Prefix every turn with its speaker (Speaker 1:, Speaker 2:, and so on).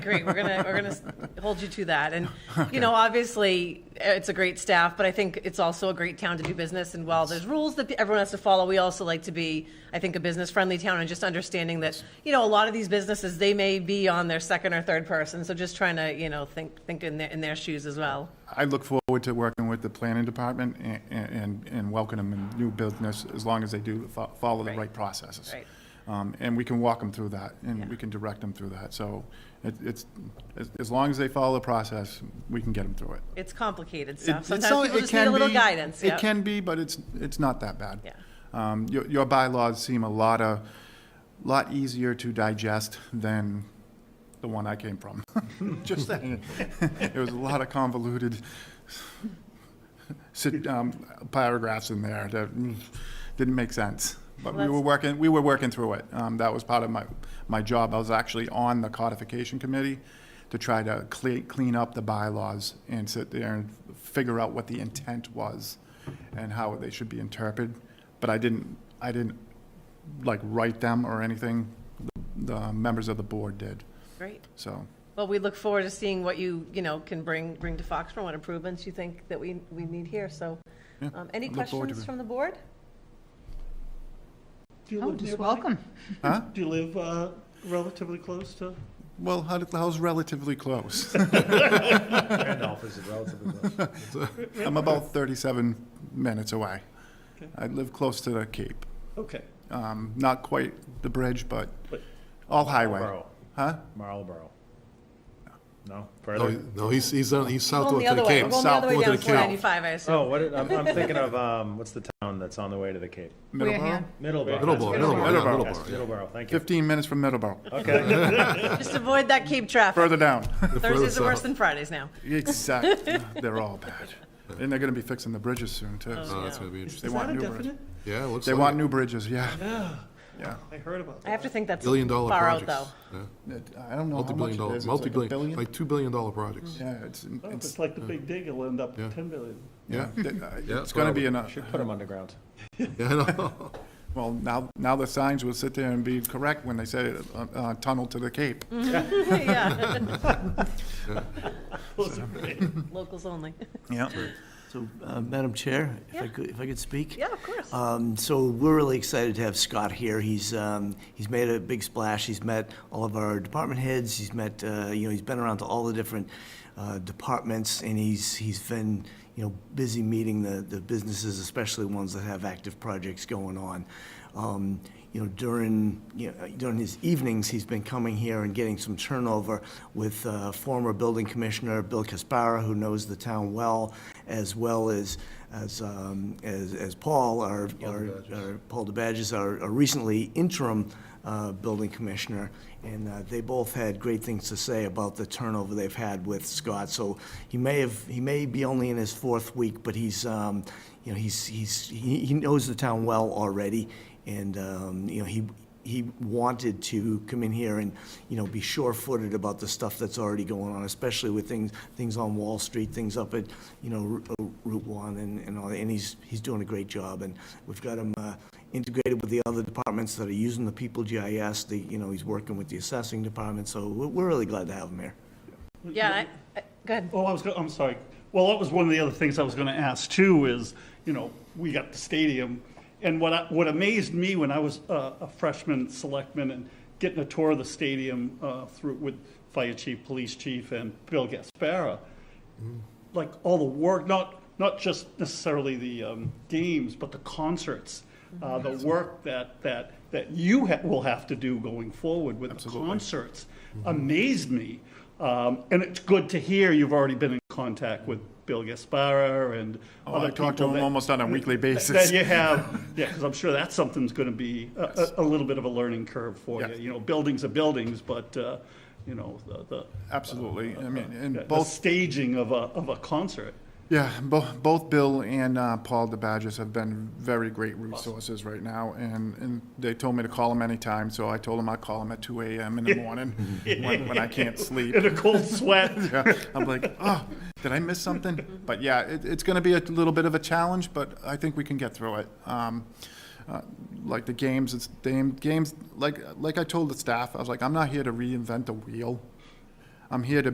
Speaker 1: Great, we're gonna, we're gonna s- hold you to that, and, you know, obviously, eh, it's a great staff, but I think it's also a great town to do business, and while there's rules that everyone has to follow, we also like to be, I think, a business-friendly town, and just understanding that, you know, a lot of these businesses, they may be on their second or third person, so just trying to, you know, think, think in their, in their shoes as well.
Speaker 2: I look forward to working with the planning department and- and, and welcome them in new business as long as they do fo- follow the
Speaker 1: Right.
Speaker 2: right processes.
Speaker 1: Right.
Speaker 2: Um, And we can walk them through that and we can direct them through that. So it- it's, as- as long as they follow the process, we can get them through it.
Speaker 1: It's complicated
Speaker 2: It-
Speaker 1: stuff,
Speaker 2: it's
Speaker 1: sometimes
Speaker 2: only-
Speaker 1: people
Speaker 2: it
Speaker 1: just need a
Speaker 2: can
Speaker 1: little
Speaker 2: be-
Speaker 1: guidance, yeah.
Speaker 2: It can be, but it's, it's not that bad.
Speaker 1: Yeah.
Speaker 2: Um, Your, your bylaws seem a lot of, lot easier to digest than the one I came from. Just saying. It was a lot of convoluted sit- um, paragraphs in there that mm, didn't make sense. But we
Speaker 1: Well,
Speaker 2: were
Speaker 1: that's-
Speaker 2: working, we were working through it. Um, That was part of my, my job. I was actually on the codification committee to try to clean, clean up the bylaws and sit there and figure out what the intent was and how they should be interpreted. But I didn't, I didn't like write them or anything. The members of the board did,
Speaker 1: Great,
Speaker 2: so.
Speaker 1: well, we look forward to seeing what you, you know, can bring, bring to Foxborough, what improvements you think that we, we need here, so.
Speaker 2: yeah,
Speaker 1: um, Any
Speaker 2: I look forward to
Speaker 1: questions
Speaker 2: it.
Speaker 1: from the board?
Speaker 3: Do you
Speaker 4: Oh,
Speaker 3: live
Speaker 4: just
Speaker 3: nearby?
Speaker 4: welcome.
Speaker 2: Huh?
Speaker 3: Do you live uh, relatively close to?
Speaker 2: Well, how, how's relatively close?
Speaker 5: Randolph is relatively close.
Speaker 2: I'm about 37 minutes away. I live close to the Cape.
Speaker 3: Okay.
Speaker 2: Um, not quite the bridge, but
Speaker 3: But-
Speaker 2: all highway.
Speaker 5: Marlboro.
Speaker 2: Huh?
Speaker 5: Marlboro. No,
Speaker 6: No,
Speaker 5: further?
Speaker 6: he- no, he's, he's, on- he's
Speaker 1: Going
Speaker 6: southward
Speaker 1: the
Speaker 6: to the
Speaker 1: other way, going
Speaker 6: Cape.
Speaker 1: the other way
Speaker 6: Southward
Speaker 1: down
Speaker 6: to the
Speaker 1: four
Speaker 6: Cape.
Speaker 1: ninety-five, I assume.
Speaker 5: Oh, what, I'm, I'm thinking of, um, what's the town that's on the way to the Cape?
Speaker 2: Middleborough.
Speaker 4: Wareham.
Speaker 5: Middleborough. that's
Speaker 6: Middleborough,
Speaker 5: what it is.
Speaker 6: Middleborough,
Speaker 2: Middleborough.
Speaker 5: Yes,
Speaker 6: Middleborough, yeah.
Speaker 5: Middleborough, thank you.
Speaker 2: 15 minutes from Middleborough.
Speaker 6: Uh,
Speaker 5: Okay,
Speaker 2: Oh.
Speaker 1: Just avoid that Cape traffic.
Speaker 2: Further down.
Speaker 1: Thursdays are
Speaker 6: Further
Speaker 1: worse
Speaker 6: south.
Speaker 1: than Fridays now.
Speaker 2: exactly. They're all bad. And they're going to be fixing the bridges soon, too.
Speaker 6: Oh, that's gonna be
Speaker 2: They
Speaker 6: interesting.
Speaker 3: Is
Speaker 2: want
Speaker 3: that a
Speaker 2: new bridges.
Speaker 3: definite?
Speaker 6: Yeah, it looks
Speaker 2: They
Speaker 6: like
Speaker 2: want
Speaker 6: it.
Speaker 2: new bridges, yeah.
Speaker 3: Yeah,
Speaker 2: Yeah.
Speaker 3: I heard
Speaker 1: I
Speaker 3: about that.
Speaker 1: have to think that's
Speaker 6: Billion dollar
Speaker 1: far out,
Speaker 6: projects.
Speaker 1: though.
Speaker 6: Yeah.
Speaker 2: It- I don't know how much
Speaker 6: Multi-billion
Speaker 2: it is.
Speaker 6: dollar,
Speaker 2: It's like a
Speaker 6: multi-billion,
Speaker 2: billion?
Speaker 6: like two billion dollar projects.
Speaker 2: Yeah, it's,
Speaker 3: Oh,
Speaker 2: it's, uh,
Speaker 3: It's like the big dig, it'll end up
Speaker 6: Yeah.
Speaker 3: 10 billion.
Speaker 6: Yeah,
Speaker 2: it's
Speaker 6: that's
Speaker 2: going to
Speaker 6: what I
Speaker 2: be
Speaker 6: would-
Speaker 2: in a,
Speaker 5: should put them underground.
Speaker 6: yeah, I know.
Speaker 2: well, now, now the signs will sit there and be correct when they say uh, uh, tunnel to the Cape.
Speaker 6: Mm.
Speaker 1: Yeah,
Speaker 3: Those are great.
Speaker 1: locals only.
Speaker 2: Yeah.
Speaker 7: So, uh, Madam Chair, if
Speaker 1: Yeah.
Speaker 7: I could, if I could speak?
Speaker 1: Yeah, of course.
Speaker 7: Um, So we're really excited to have Scott here. He's, um, he's made a big splash. He's met all of our department heads. He's met, uh, you know, he's been around to all the different uh, departments, and he's, he's been, you know, busy meeting the, the businesses, especially ones that have active projects going on. Um, You know, during, you know, during his evenings, he's been coming here and getting some turnover with uh, former building commissioner Bill Caspara, who knows the town well, as well as, as, um, as as Paul, our, our- our- Paul DeBadges, our our recently interim uh, building commissioner. And uh, they both had great things to say about the turnover they've had with Scott. So he may have, he may be only in his fourth week, but he's, um, you know, he's, he's, he he knows the town well already. And, um, you know, he, he wanted to come in here and, you know, be sure-footed about the stuff that's already going on, especially with things, things on Wall Street, things up at, you know, Ru- uh, Route One and, and all, that. and he's, he's doing a great job. And we've got him uh, integrated with the other departments that are using the People GIS, the, you know, he's working with the assessing department, so we're, we're really glad to have him here.
Speaker 1: Yeah, I- I- go ahead.
Speaker 3: Oh, I was, go- I'm sorry. Well, that was one of the other things I was gonna ask too, is, you know, we got the stadium. And what, I- what amazed me when I was uh, a freshman selectman and getting a tour of the stadium uh, through, with fire chief, police chief, and Bill Gaspara, like all the work, not, not just necessarily the um, games, but the concerts, uh, the
Speaker 2: Mm-hmm.
Speaker 3: work that, that, that you ha- will have to do going forward with the concerts
Speaker 2: Mm-hmm.
Speaker 3: amazed me. Um, and it's good to hear you've already been in contact with Bill Gaspara and
Speaker 2: Oh,
Speaker 3: other
Speaker 2: I talk to
Speaker 3: people
Speaker 2: him
Speaker 3: that-
Speaker 2: almost on a weekly
Speaker 3: that
Speaker 2: basis.
Speaker 3: you have, yeah, because I'm sure that's something's going to be a, a, a little bit of a learning curve for you.
Speaker 2: Yes.
Speaker 3: You know, buildings are buildings, but, uh, you know, the, the.
Speaker 2: Absolutely. I mean,
Speaker 3: the-
Speaker 2: and
Speaker 3: The
Speaker 2: both,
Speaker 3: staging of a, of a concert.
Speaker 2: yeah, both, both Bill and uh, Paul DeBadges have been very great resources right now. And, and they told me to call him anytime, so I told him I'd call him at 2 AM in the morning when, when I can't sleep.
Speaker 3: in a cold sweat.
Speaker 2: Yeah, I'm like, oh, did I miss something? But yeah, it, it's going to be a little bit of a challenge, but I think we can get through it. Um, uh, like the games, it's game, games. Like like I told the staff, I was like, I'm not here to reinvent the wheel. I'm here to